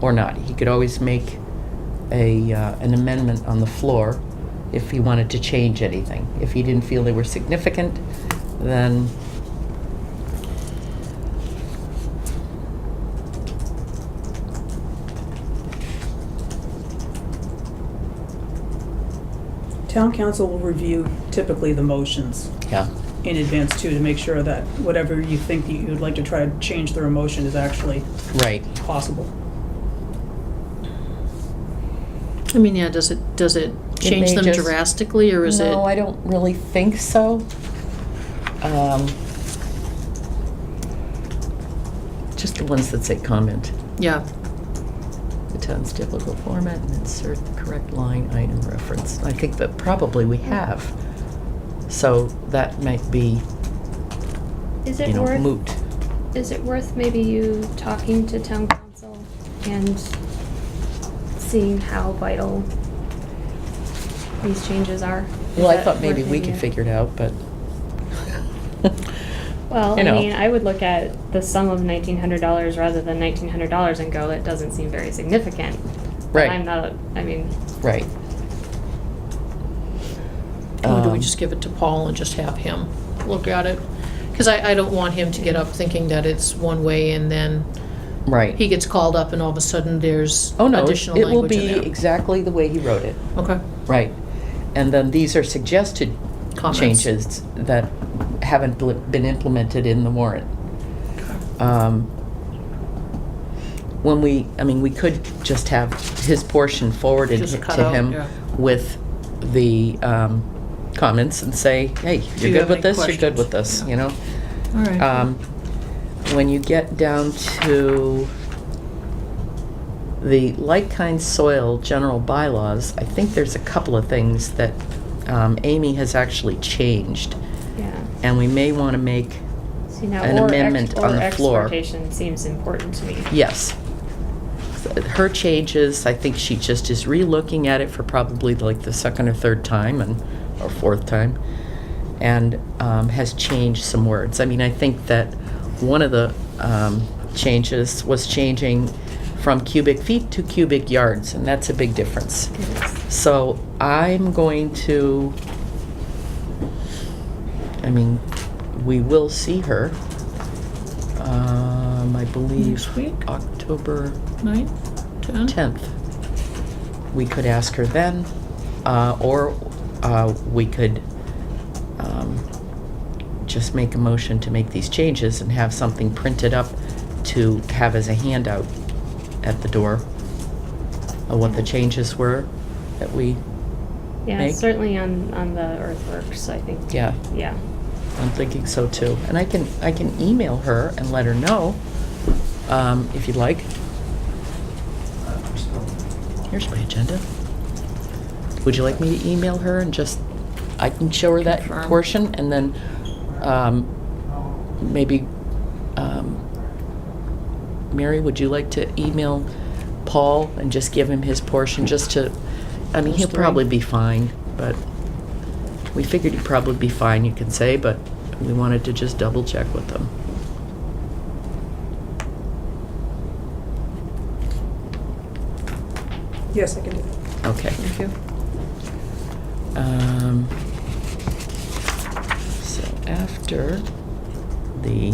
or not. He could always make a, uh, an amendment on the floor if he wanted to change anything. If he didn't feel they were significant, then Town council will review typically the motions Yeah, in advance too, to make sure that whatever you think that you'd like to try to change their motion is actually right. possible. I mean, yeah, does it, does it change may them just- drastically, or is it? No, I don't really think so. Um, Just the ones that say comment. Yeah, The town's typical format and insert the correct line item reference. I think that probably we have. So that might be, Is you it know, worth, moot. is it worth maybe you talking to town council and seeing how vital these changes are? Is Well, I that thought maybe worth we could figure it out, but. Well, you I know. mean, I would look at the sum of nineteen hundred dollars rather than nineteen hundred dollars and go, that doesn't seem very significant. But Right. I'm not, I mean, Right. or do we Um, just give it to Paul and just have him look at it? Because I, I don't want him to get up thinking that it's one way and then Right. he gets called up and all of a sudden there's Oh, no, additional it will language in be there. exactly the way he wrote it. Okay, Right. And then these are suggested Comments. changes that haven't bl- been implemented in the warrant. Um, When we, I mean, we could just have his portion forwarded Just cut to out, him yeah. with the um, comments and say, hey, Do you're you good have with any this, you're good questions?" with this, Yeah. you know? all right. Um, When you get down to the like-kind soil general bylaws, I think there's a couple of things that um, Amy has actually changed, yeah. and we may want to make, See, now, An or ex- amendment on the or floor. exportation seems important to me. yes. Her changes, I think she just is re-looking at it for probably like the second or third time and, or fourth time, and um, has changed some words. I mean, I think that one of the um, changes was changing from cubic feet to cubic yards, and that's a big difference. It is. So I'm going to, I mean, we will see her, um, I believe. Next week? October Nine, ten? 10th. We could ask her then, uh, or, uh, we could, um, just make a motion to make these changes and have something printed up to have as a handout at the door of what the changes were that we Yeah, Meg? certainly on, on the earthworks, I think. Yeah, Yeah. I'm thinking so too. And I can, I can email her and let her know, um, if you'd like. Here's my agenda. Would you like me to email her and just, I can show her that Confirm. portion and then, um, maybe, um, Mary, would you like to email Paul and just give him his portion, just to, I mean, he'll Those three. probably be fine, but we figured he'd probably be fine, you can say, but we wanted to just double check with them. Yes, I can do that. Okay. Thank you. Um, so after the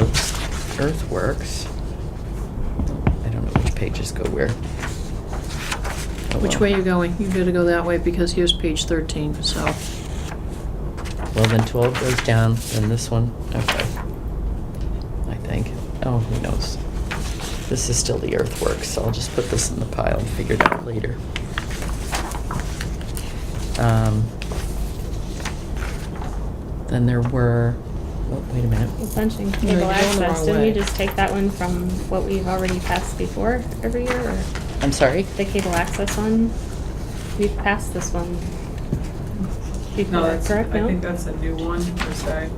oops, earthworks, I don't know which pages go where. Oh, Which well. way you going? You gotta go that way because here's page thirteen, so. Well, then 12 goes down, then this one, okay. I think. Oh, who knows? This is still the earthworks, so I'll just put this in the pile and figure it out later. Um, Then there were, oh, wait a minute. Essentially, you're cable going the access, wrong didn't we way. just take that one from what we've already passed before every year, or I'm sorry? the cable access one? We've passed this one No, before, that's, correct, I think no? that's a new one, per se,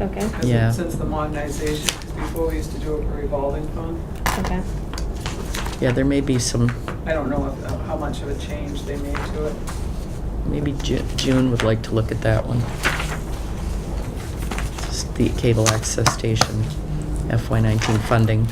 Okay, 'cause Yeah. it- since the modernization, 'cause before we used to do it for revolving fund. okay. Yeah, there may be some, I don't know if, how much of a change they made to it. maybe Ju- June would like to look at that one. Just The cable access station FY19 funding.